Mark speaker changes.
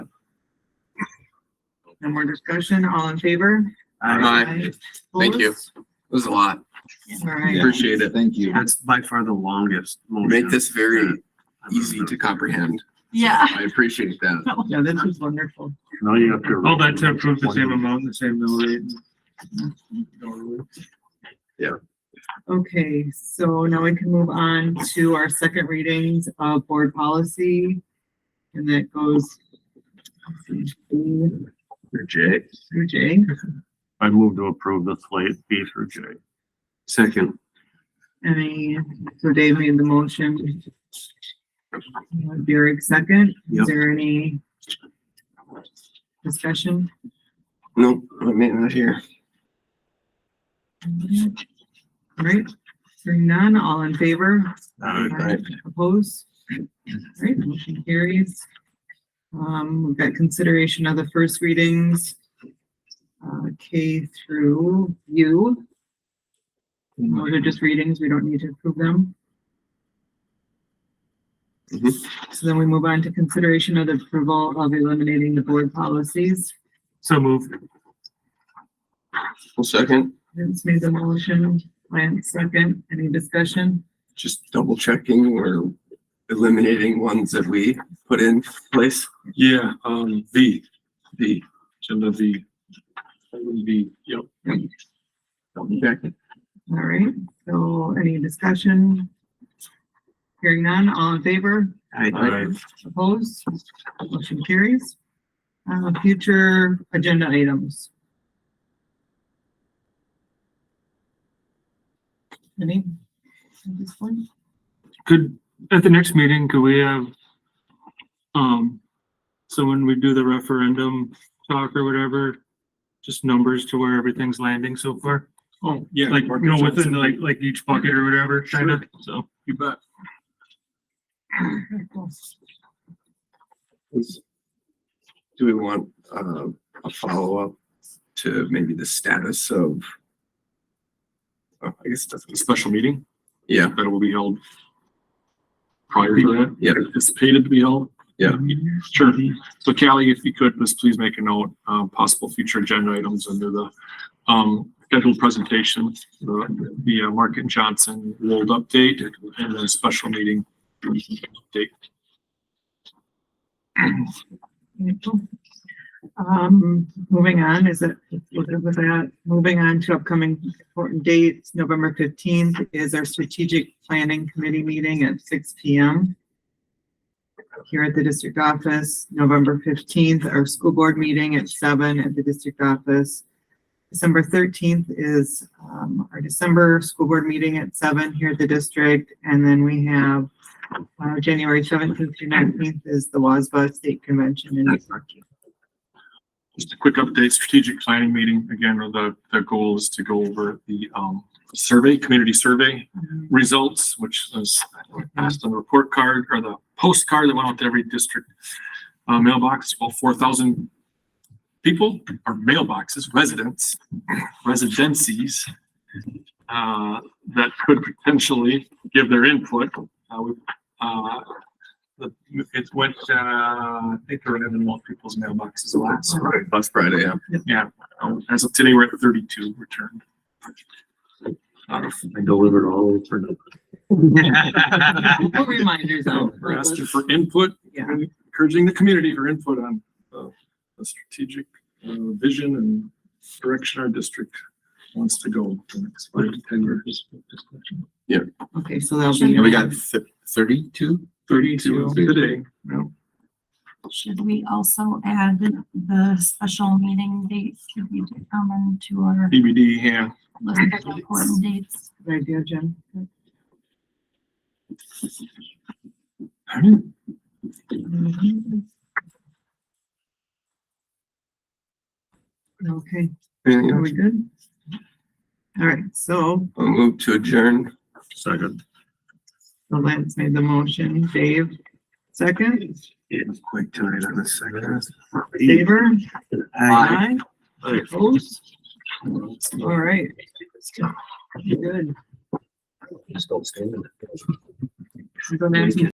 Speaker 1: No more discussion, all in favor?
Speaker 2: Aye. Thank you.
Speaker 1: Opposed?
Speaker 2: It was a lot.
Speaker 1: All
Speaker 3: Yeah.
Speaker 1: right,
Speaker 2: Appreciate it.
Speaker 3: Thank you.
Speaker 4: That's by far the longest.
Speaker 2: You
Speaker 5: Oh,
Speaker 4: motion
Speaker 2: Make this very
Speaker 4: I've
Speaker 2: easy
Speaker 4: ever-
Speaker 2: to comprehend.
Speaker 6: Yeah.
Speaker 2: I appreciate that.
Speaker 7: Yeah, this is wonderful.
Speaker 4: No, you have to.
Speaker 7: All that to approve the same amount, the same mill rate.
Speaker 1: okay, so now we can move on to our second readings of board policy. And that goes let's see, B
Speaker 4: J.
Speaker 1: through J,
Speaker 4: I move to approve the slate B through J. Second.
Speaker 1: any, so Dave made the motion. Derek second, is
Speaker 4: Yep.
Speaker 1: there any discussion?
Speaker 2: Nope, I mean, not here.
Speaker 1: All right, hearing none, all in favor? Aye. Opposed? Alright, motion carries. Um, we've got consideration of the first readings, uh, K through U. Those are just readings, we don't need to approve them. So then we move on to consideration of the approval of eliminating the board policies.
Speaker 7: So move.
Speaker 2: Well, second,
Speaker 1: Vince made the motion, Lance second, any discussion?
Speaker 2: just double checking or eliminating ones that we put in place.
Speaker 5: Yeah, um, V, V, agenda V. Item V, yep.
Speaker 2: Double checking.
Speaker 1: All right, so any discussion? Hearing none, all in favor?
Speaker 2: Aye.
Speaker 1: Opposed? Motion carries. Uh, future agenda items. Any? at this point?
Speaker 5: Could, at the next meeting, could we have, um, so when we do the referendum talk or whatever, just numbers to where everything's landing so far?
Speaker 7: Oh,
Speaker 5: Yeah.
Speaker 7: Like, you know, within like, like each bucket or whatever, kind of, so.
Speaker 5: You bet.
Speaker 2: Is- Do we want, uh, a follow-up to maybe the status of? Oh, I guess it doesn't,
Speaker 5: Special meeting
Speaker 2: yeah,
Speaker 5: that will be held prior to that.
Speaker 2: Yeah.
Speaker 5: Anticipated to be held.
Speaker 2: Yeah.
Speaker 5: Um, Sure. So Callie, if you could, just please make a note, um, possible future agenda items under the, um, scheduled presentation, the, the uh, Mark and Johnson world update and then special meeting update.
Speaker 1: Um, moving on, is it, we're good with that, moving on to upcoming important dates, November fifteenth is our strategic planning committee meeting at six P M. Here at the district office, November fifteenth, our school board meeting at seven at the district office. December thirteenth is, um, our December school board meeting at seven here at the district, and then we have uh, January seventeenth through nineteenth is the WASBA State Convention in New York.
Speaker 5: Just a quick update, strategic planning meeting, again, the, the goal is to go over the, um, survey, community survey results, which is passed on the report card or the postcard that went out to every district uh, mailbox, all four thousand people or mailboxes, residents, residencies uh, that could potentially give their input. Uh, we, uh, the- It went, uh, I think there were eleven more people's mailboxes last, right?
Speaker 2: last Friday, yeah.
Speaker 5: Yeah, um, as of today, we're at thirty-two returned. Uh, Out of
Speaker 4: I delivered all for nothing.
Speaker 1: Put reminders out.
Speaker 5: We're asking for input,
Speaker 1: Yeah.
Speaker 5: and encouraging the community for input on uh, the strategic uh, vision and direction our district wants to go for the next five to ten years.
Speaker 1: Okay, so that'll be.
Speaker 2: And we got thirty-two?
Speaker 5: Thirty-two today. yeah.
Speaker 3: Should we also add the special meeting dates to be determined to our
Speaker 5: BBD, yeah.
Speaker 3: list of important dates?
Speaker 1: Good idea, Jen. Okay,
Speaker 2: Anything
Speaker 1: are
Speaker 2: else?
Speaker 1: we good? All right, so
Speaker 2: I'll move to adjourn.
Speaker 4: Second.
Speaker 1: so Lance made the motion, Dave, second,
Speaker 4: It was quick tonight on the second.
Speaker 7: E.
Speaker 1: favor,
Speaker 4: Aye.
Speaker 1: aye,
Speaker 4: Aye.
Speaker 1: opposed? All right. Good.
Speaker 4: Just don't stand in it.
Speaker 1: Go back to